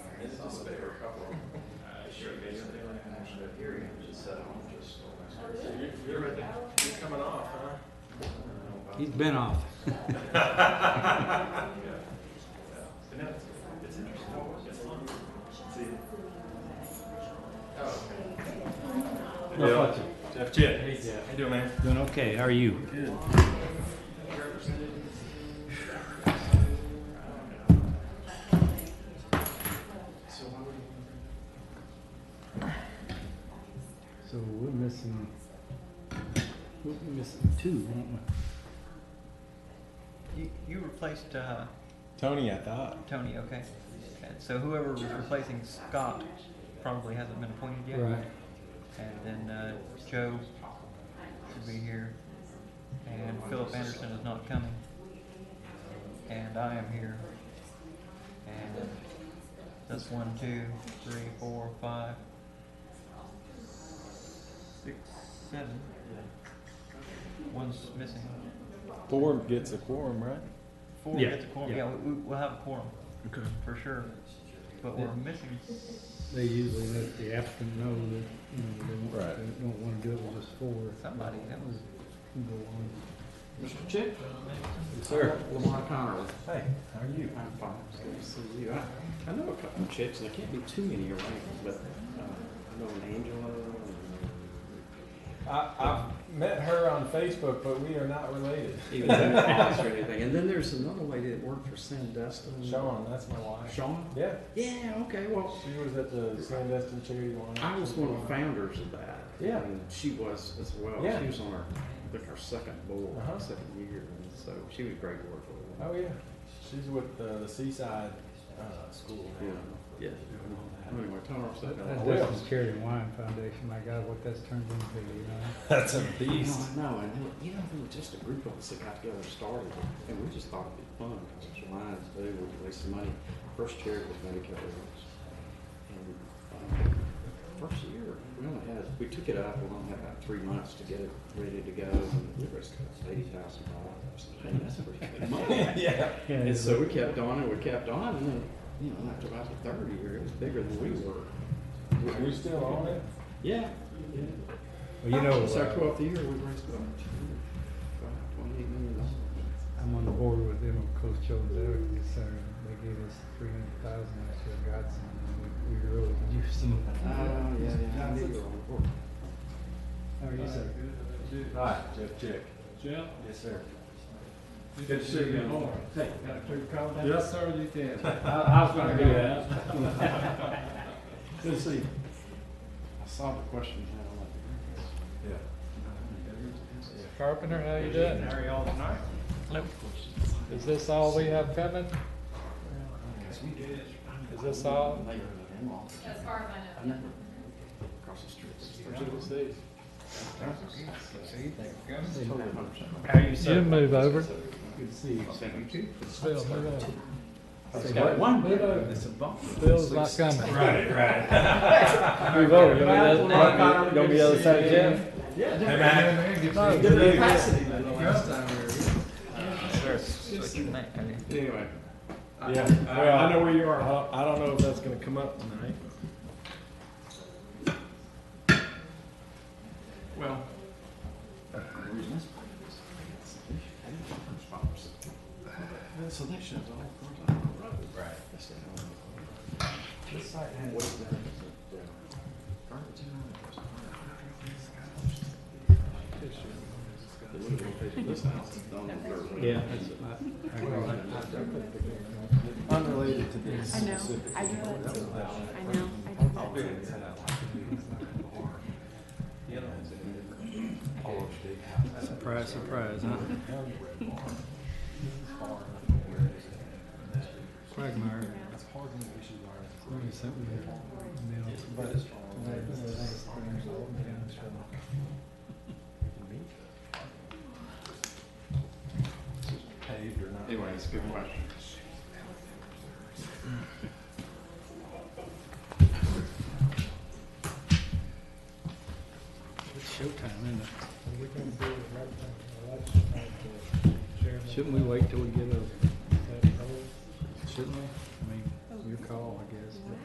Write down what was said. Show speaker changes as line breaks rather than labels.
Uh, hearing, I just said, I'm just.
So you're, you're, at the- you're coming off, huh?
He's been off.
It's interesting, it's fun. See,
No, fuck you.
Jeff, Jeff. Hey, Jeff. How you doing, man?
Doing okay, how are you?
so why would you?
So we're missing, we're missing two, aren't we?
You, you replaced uh,
Tony, I thought.
Tony, okay. And so whoever was replacing Scott probably hasn't been appointed yet.
Right.
And then uh, Joe should be here. And Philip Anderson is not coming. And I am here. And that's one, two, three, four, five, six, seven. One's missing.
Four gets a quorum, right?
Four
Yeah,
gets a quorum.
yeah.
Yeah, we, we- we'll have a quorum.
Okay.
For sure. But we're missing.
They usually let the applicant know that, you know, they don't,
Right.
they don't wanna do it with us four.
Somebody, that was-
Can Go on.
Mr. Chick?
Sir.
Lamar Connerly.
Hey, how are you?
I'm fine. It's good to see you. I, I know a couple of Chicks, and there can't be too many around, but uh, I know an Angela. and-
I, I've met her on Facebook, but we are not related.
Even though Alice or anything. And then there's another lady that worked for Sandestin.
Sean, that's my wife.
Sean?
Yeah,
Yeah, okay, well,
she was at the Sandestin Charity Lawn.
I was one of the founders of that.
Yeah.
And she was as well.
Yeah.
She was on our, I think our second board,
Uh-huh.
second year, and so she was great to work with.
Oh yeah, she's with uh, the Seaside uh, School now.
Yeah, yeah. Anyway, tell her I said hello.
That's Dustin's Charity and Wine Foundation, my God, what that's turned into, you know?
That's a
No, I know, and they- you know, there were just a group of us that got together and started it, and we just thought it'd be fun, because it's Lions do, we raise some money. First charity was Medicare Awards. And, um, first year, we only had, we took it up, we only had about three months to get it ready to go, and we raised about eighty thousand dollars. And that's pretty good money.
yeah.
And so we kept on and we kept on, and then, you know, after about the third year, it was bigger than we were.
Are you still on it?
Yeah, yeah.
Well, you know,
It's our
uh,
twelfth year, we raised about twenty-eight million dollars.
I'm on the board with them on Coast Children's Advocacy Center, they gave us three hundred thousand last year, Godson, and we, we really could use some. of that.
Oh, yeah, yeah, I knew you were on the board.
How are you, sir?
Hi, Jeff Chick.
Jeff,
Yes, sir.
you
Good
can
to
see
see you.
me more.
Hey, got a clear call?
Yes, sir, you can.
I, I was
I
gonna
do
do that.
that.
Good to see you. I saw the question you had on it.
Yeah.
Carpenter, how you doing?
How are y'all tonight?
Nope.
Is this all we have coming? Is this all?
Neighborhood in-law.
As far as
I
I know.
never, across the street.
See, there we go.
Totally a hundred percent.
How you
You move over.
Good to see you.
Phil, move over.
It's got one bit of-
Phil's not coming.
Right, right.
Move over, you want me to, you want me the other side, Jim?
Hey, man.
Good capacity. Anyway,
Yeah, well, I know where you are. I don't, I don't know if that's gonna come up tonight.
well. That selection's all across the road.
Right.
That's the hell of a- What is that? Is it, uh, garbage in there? The little location of this house is down on the dirt road.
Yeah. I- I agree.
Unrelated to this
I know,
specific.
I know that too.
That
I know, I do that
was-
too.
Surprise, surprise, huh? Quagmire. Wrote me something in the mail today. It was like,
Paved or not.
Anyway, it's a good question.
It's showtime, isn't it? Shouldn't we wait till we get a, shouldn't we? I mean, your call, I guess, but.